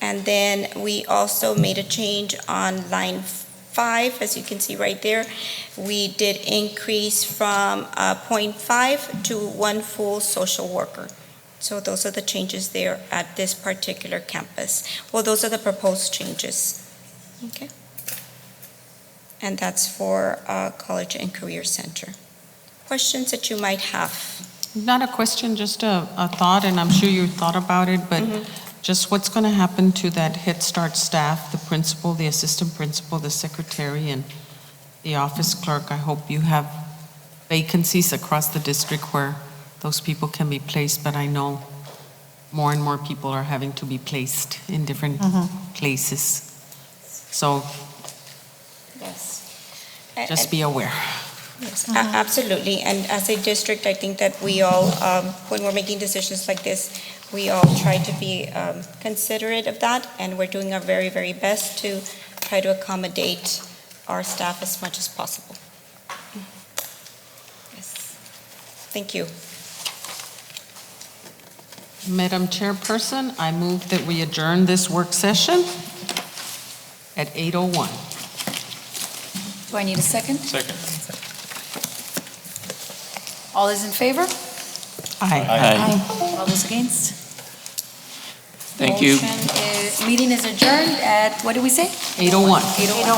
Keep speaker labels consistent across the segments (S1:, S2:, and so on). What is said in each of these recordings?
S1: And then we also made a change on line five, as you can see right there. We did increase from uh, .5 to one full social worker. So those are the changes there at this particular campus. Well, those are the proposed changes. Okay? And that's for uh, College and Career Center. Questions that you might have?
S2: Not a question, just a, a thought, and I'm sure you thought about it, but just what's going to happen to that Head Start staff, the principal, the assistant principal, the secretary, and the office clerk? I hope you have vacancies across the district where those people can be placed, but I know more and more people are having to be placed in different places. So
S1: Yes.
S2: just be aware.
S1: Yes, a- Absolutely, and as a district, I think that we all, um, when we're making decisions like this, we all try to be um, considerate of that, and we're doing our very, very best to try to accommodate our staff as much as possible. Yes. Thank you.
S2: Madam Chairperson, I move that we adjourn this work session at 8:01.
S3: Do I need a second?
S4: Second.
S3: All those in favor?
S2: Aye.
S3: All those against?
S4: Thank you.
S3: Motion is, meeting is adjourned at, what did we say?
S2: 801.
S3: 8:01.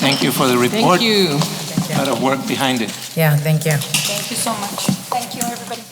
S4: Thank you for the report.
S2: Thank you.
S4: A lot of work behind it.
S5: Yeah, thank you.
S3: Thank you so much. Thank you, everybody.